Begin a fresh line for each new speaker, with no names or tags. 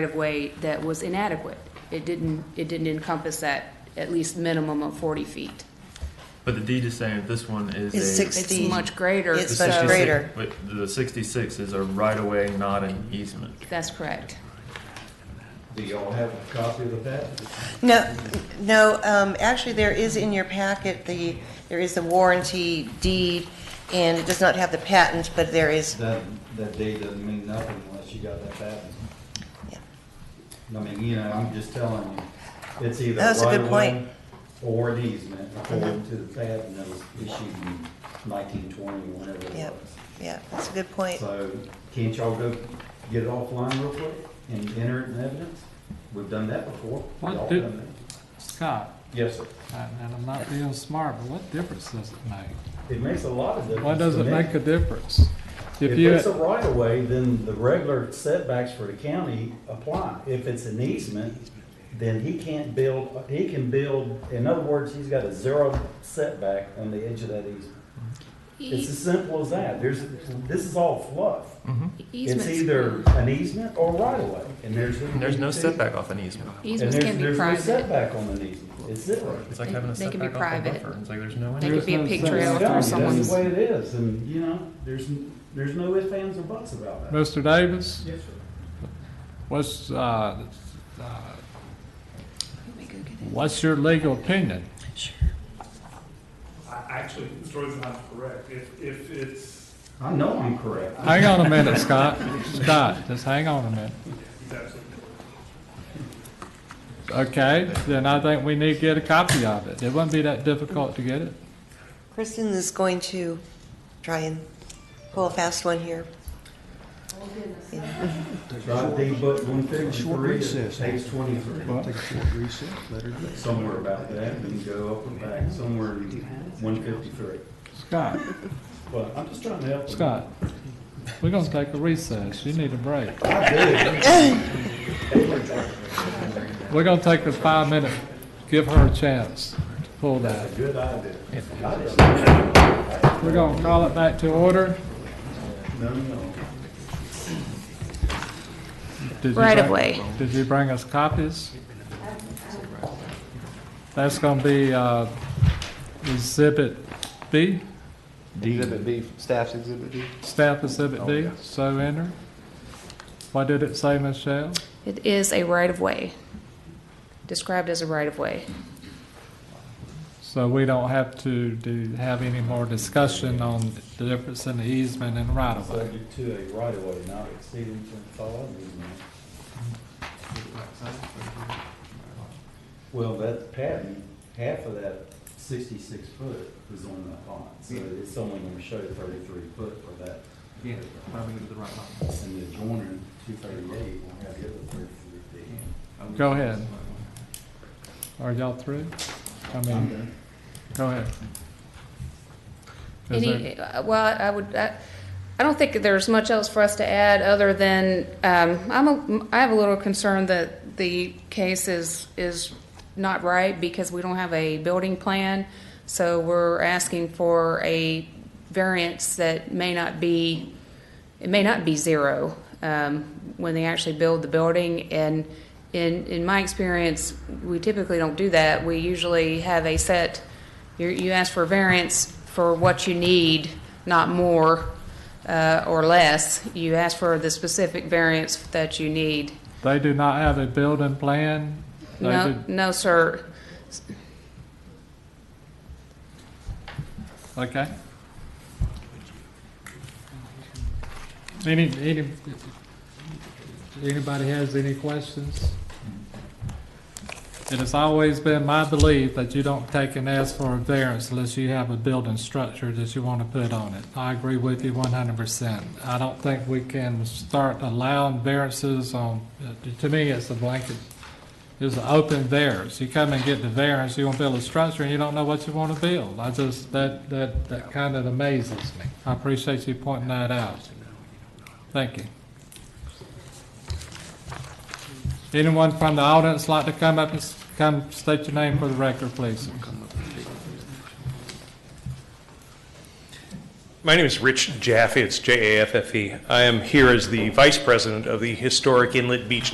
right-of-way that was inadequate. It didn't, it didn't encompass that at least minimum of 40 feet.
But the deed is saying that this one is
It's
a.
six-
It's
60.
much greater,
the
It's much
so-
66
greater.
wait, The sixty-six is a right-of-way, not an easement.
That's correct.
Do y'all have a copy of that?
No, no, um, actually, there is in your packet, the, there is the warranty deed, and it does not have the patent, but there is,
That, that deed doesn't mean nothing unless you got that patent.
Yeah.
I mean, you know, I'm just telling you, it's either
That's a
right
good
of
point. Uh-huh.
way or an easement according to the patent that was issued in nineteen twenty, whenever it
Yep.
was.
yeah, that's a good point.
So can't y'all go get it offline real quick and enter it in evidence? We've done that before.
What
Y'all
do-
done that.
Scott,
Yes, sir.
and and I'm not being smart, but what difference does it make?
It makes a lot of difference.
Why does
to
it
me.
make a difference?
If
If you,
it's a right of way, then the regular setbacks for the county apply. If it's an easement, then he can't build, he can build, in other words, he's got a zero setback on the edge of that easement. It's as simple as that. There's, this is all fluff. It's
Mm-hmm. Easements-
either an easement or right of way, and there's.
And there's no setback off an easement.
And
Easements
there's,
can be
there's no
private.
setback on an easement. It's zero.
It's like having a
They can be
setback off a
private.
buffer. It's like there's no.
They
end.
could be a
There's
pig
no
trail
sense.
through
That's the
someone's,
way it is, and, you know, there's, there's no ifs, ands, or buts about that.
Mr. Davis,
Yes, sir.
what's, uh, uh, what's your legal opinion?
I- Actually, Troy's not correct. If, if it's,
I know I'm correct.
Hang on a minute, Scott. Scott, just hang on a minute.
he's absolutely correct.
Okay, then I think we need to get a copy of it. It wouldn't be that difficult to get it.
Kristen is going to try and pull a fast one here.
Drive D book one fifty-three,
recess.
page twenty-three,
Take a short recess, let her go.
somewhere about that, and go up and back, somewhere in one fifty-three.
Scott,
Well, I'm just trying to help. them.
Scott, we're gonna take a recess. You need a break. We're gonna take a five minute, give her a chance to pull that.
Good idea.
We're gonna call it back to order.
No, no.
Did you
Right of
bring-
way.
Did you bring us copies? That's gonna be, uh, exhibit B,
Exhibit B, staff's exhibit B.
staff exhibit
Oh,
B, so enter. What did it say, Michelle?
it is a right-of-way, described as a right-of-way.
So we don't have to do, have any more discussion on the difference in the easement and right of way.
Subject to a right of way not exceeding twenty-five easement. Well, that patent, half of that sixty-six foot is on that lot, so it's only gonna show thirty-three foot for that.
Yeah, probably the right one.
And the adjoining two thirty-eight will have the other thirty-three feet.
Go ahead. Are y'all through? I
I'm
mean,
done.
go ahead. Is there-
Any, uh, well, I would, I, I don't think there's much else for us to add other than, um, I'm a, I have a little concern that the case is, is not right because we don't have a building plan. So we're asking for a variance that may not be, it may not be zero, um, when they actually build the building. And in, in my experience, we typically don't do that. We usually have a set, you, you ask for variance for what you need, not more, uh, or less. You ask for the specific variance that you need.
They do not have a building plan. They
No,
do-
no, sir.
Okay. Any, any, anybody has any questions? It has always been my belief that you don't take and ask for a variance unless you have a building structure that you want to put on it. I agree with you one hundred percent. I don't think we can start allowing variances on, to me, it's a blanket, it's an open variance. You come and get the variance, you want to build a structure and you don't know what you want to build. I just, that, that, that kind of amazes me. I appreciate you pointing that out. Thank you. Anyone from the audience like to come up and s- come state your name for the record, please?
My name is Rich Jaffe. It's J A F F E. I am here as the vice president of the Historic Inlet Beach